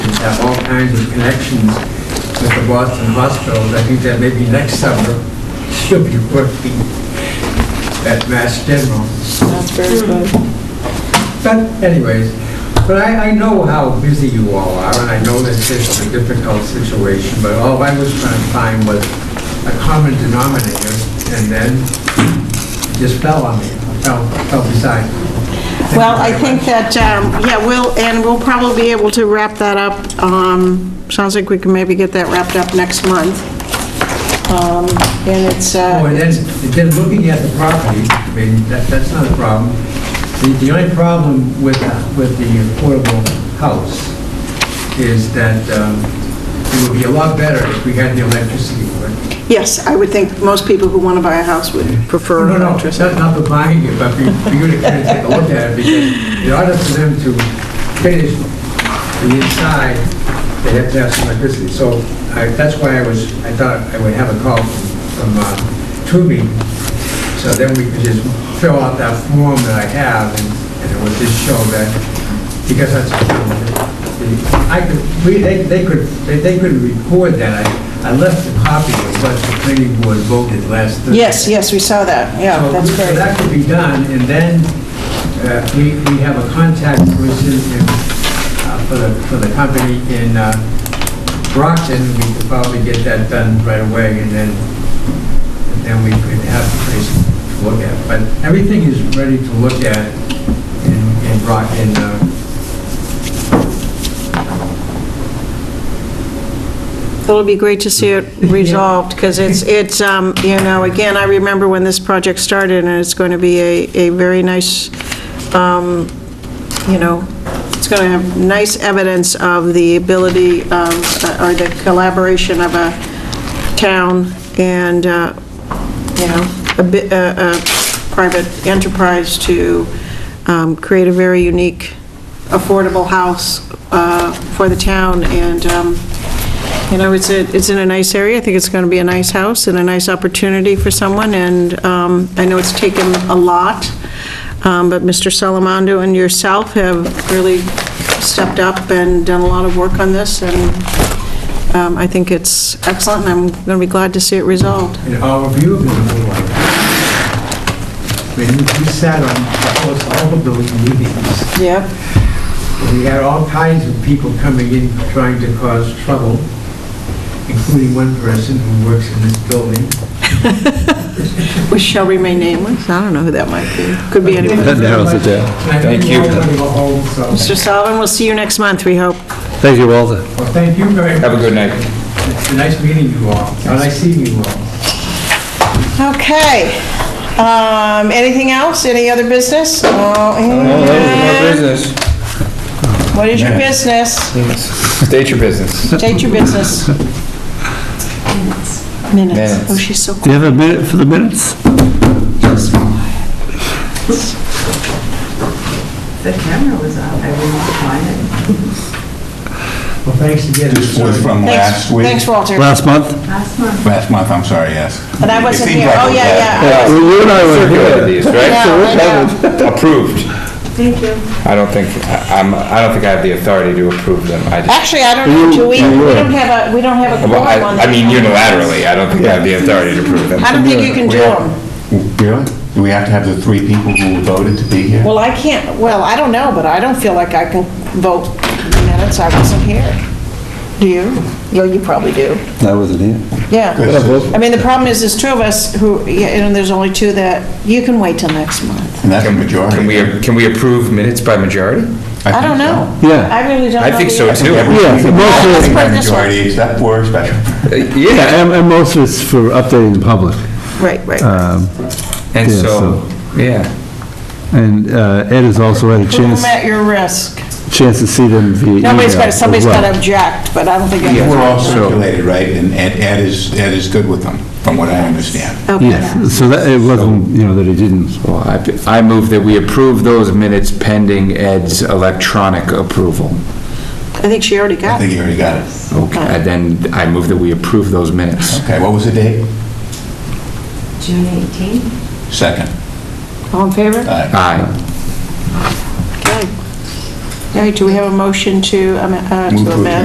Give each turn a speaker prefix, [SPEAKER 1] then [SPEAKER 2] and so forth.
[SPEAKER 1] have all kinds of connections with the Boston hospitals. I think that maybe next summer, she'll be working at Mass General.
[SPEAKER 2] That's very good.
[SPEAKER 1] But anyways, but I, I know how busy you all are, and I know that this is a difficult situation, but all I was trying to find was a common denominator, and then it just fell on me, fell, fell beside me. Thank you
[SPEAKER 2] Well, I
[SPEAKER 1] very
[SPEAKER 2] think
[SPEAKER 1] much.
[SPEAKER 2] that, um, yeah, we'll, and we'll probably be able to wrap that up. um, Sounds like we can maybe get that wrapped up next month. Um, And it's,
[SPEAKER 1] Oh, and
[SPEAKER 2] uh,
[SPEAKER 1] then, then looking at the property, I mean, that, that's not a problem. The, the only problem with, uh, with the affordable house is that, um, it would be a lot better if we had the electricity for it.
[SPEAKER 2] yes, I would think most people who want to buy a house would prefer
[SPEAKER 1] No, no,
[SPEAKER 2] electricity.
[SPEAKER 1] not not for buying it, but for you- for you to kind of take a look at it, because in order for them to finish the inside, they have to have some electricity. So I, that's why I was, I thought I would have a call from, from uh, Truby, so then we could just fill out that form that I have, and and it would just show that, because that's, I could, we, they, they could, they they could record that. I I left a copy of what the planning board voted last Thursday.
[SPEAKER 2] Yes, yes, we saw that, yeah,
[SPEAKER 1] So
[SPEAKER 2] that's
[SPEAKER 1] so
[SPEAKER 2] great.
[SPEAKER 1] that could be done, and then uh, we we have a contact person in, uh, for the, for the company in uh, Brockton, we could probably get that done right away, and then, and then we could have a place to look at. But everything is ready to look at in in Brock, in, uh,
[SPEAKER 2] It'll be great to see it resolved, because it's, it's, um, you know, again, I remember when this project started, and it's going to be a, a very nice, um, you know, it's going to have nice evidence of the ability of, or the collaboration of a town and, uh, you know, a bit, a private enterprise to um, create a very unique, affordable house uh, for the town, and, um, you know, it's, a- it's in a nice area, I think it's going to be a nice house and a nice opportunity for someone, and um, I know it's taken a lot, um, but Mr. Salamando and yourself have really stepped up and done a lot of work on this, and um, I think it's excellent, and I'm going to be glad to see it resolved.
[SPEAKER 1] in all of you have been involved. I mean, you- you sat on almost all of those meetings.
[SPEAKER 2] Yeah.
[SPEAKER 1] We had all kinds of people coming in trying to cause trouble, including one person who works in this building.
[SPEAKER 2] Which shall remain nameless, I don't know who that might be, could be anybody.
[SPEAKER 3] That narrows it down.
[SPEAKER 1] And I
[SPEAKER 3] Thank
[SPEAKER 1] think
[SPEAKER 3] you.
[SPEAKER 1] we're all gonna go home, so,
[SPEAKER 2] Mr. Sullivan, we'll see you next month, we hope.
[SPEAKER 3] Thank you, Walter.
[SPEAKER 1] well, thank you very much.
[SPEAKER 3] Have a good night.
[SPEAKER 1] It's a nice meeting you all, and nice seeing you all.
[SPEAKER 2] Okay. Um, Anything else? Any other business? Oh, and-
[SPEAKER 3] business.
[SPEAKER 2] What is your business?
[SPEAKER 3] State your business.
[SPEAKER 2] State your business. Minutes.
[SPEAKER 3] Minutes.
[SPEAKER 2] Oh, she's so
[SPEAKER 4] Do you have a minute for the minutes?
[SPEAKER 5] The camera was on, I wouldn't find it.
[SPEAKER 1] Well, thanks again.
[SPEAKER 6] This was from
[SPEAKER 2] Thanks,
[SPEAKER 6] last week?
[SPEAKER 2] thanks, Walter.
[SPEAKER 4] Last month?
[SPEAKER 5] Last month,
[SPEAKER 6] Last month, I'm sorry, yes.
[SPEAKER 2] But I
[SPEAKER 6] It
[SPEAKER 2] wasn't
[SPEAKER 6] seems
[SPEAKER 2] here.
[SPEAKER 6] like
[SPEAKER 2] Oh,
[SPEAKER 6] it was
[SPEAKER 2] yeah,
[SPEAKER 6] last-
[SPEAKER 2] yeah.
[SPEAKER 4] we were not even
[SPEAKER 3] Circulated these, right?
[SPEAKER 2] Yeah, I know.
[SPEAKER 6] Approved.
[SPEAKER 5] thank you.
[SPEAKER 3] I don't think, I- I'm, I don't think I have the authority to approve them. I just,
[SPEAKER 2] Actually, I don't know, do we, we don't have a, we don't have a
[SPEAKER 3] well,
[SPEAKER 2] quorum
[SPEAKER 3] I,
[SPEAKER 2] on that.
[SPEAKER 3] I mean unilaterally, I don't think I have the authority to approve them.
[SPEAKER 2] I don't think you can do
[SPEAKER 6] We have-
[SPEAKER 2] them.
[SPEAKER 6] Really? Do we have to have the three people who voted to be here?
[SPEAKER 2] Well, I can't, well, I don't know, but I don't feel like I can vote minutes, I wasn't here. Do you? Yeah, you probably do.
[SPEAKER 4] I wasn't here.
[SPEAKER 2] Yeah. I mean, the problem is, there's two of us who, yeah, and there's only two that, you can wait till next month.
[SPEAKER 6] And that's the majority.
[SPEAKER 3] Can we, can we approve minutes by majority?
[SPEAKER 6] I
[SPEAKER 2] I don't
[SPEAKER 6] think so.
[SPEAKER 2] know.
[SPEAKER 4] Yeah.
[SPEAKER 2] I really don't know.
[SPEAKER 3] I think so
[SPEAKER 2] either.
[SPEAKER 3] too.
[SPEAKER 4] Yeah, so most
[SPEAKER 6] I think
[SPEAKER 4] of,
[SPEAKER 2] put
[SPEAKER 6] by
[SPEAKER 2] it this way.
[SPEAKER 6] majority, except for special.
[SPEAKER 3] Yeah,
[SPEAKER 4] yeah, and- and most of it's for updating the public.
[SPEAKER 2] Right, right.
[SPEAKER 4] Um,
[SPEAKER 3] and
[SPEAKER 4] Yeah,
[SPEAKER 3] so,
[SPEAKER 4] so-
[SPEAKER 3] yeah.
[SPEAKER 4] And uh, Ed has also had a
[SPEAKER 2] Put them
[SPEAKER 4] chance,
[SPEAKER 2] at your risk.
[SPEAKER 4] chance to see them via email
[SPEAKER 2] Nobody's got,
[SPEAKER 4] as
[SPEAKER 2] somebody's
[SPEAKER 4] well.
[SPEAKER 2] got to object, but I don't think.
[SPEAKER 6] We're all
[SPEAKER 2] anyone's-
[SPEAKER 6] circulated, right? And Ed Ed is, Ed is good with them, from what I understand.
[SPEAKER 2] Okay.
[SPEAKER 4] Yes, so that, it wasn't, you know, that he didn't.
[SPEAKER 3] Well, I, I move that we approve those minutes pending Ed's electronic approval.
[SPEAKER 2] I think she already
[SPEAKER 6] I
[SPEAKER 2] got
[SPEAKER 6] think
[SPEAKER 2] it.
[SPEAKER 6] you already got it.
[SPEAKER 3] Okay, and then I move that we approve those minutes.
[SPEAKER 6] Okay, what was the date?
[SPEAKER 5] June 18th?
[SPEAKER 6] Second.
[SPEAKER 2] All in favor?
[SPEAKER 6] Aye.
[SPEAKER 3] Aye.
[SPEAKER 2] Okay. All right, do we have a motion to am- uh, to
[SPEAKER 6] Move to
[SPEAKER 2] amend?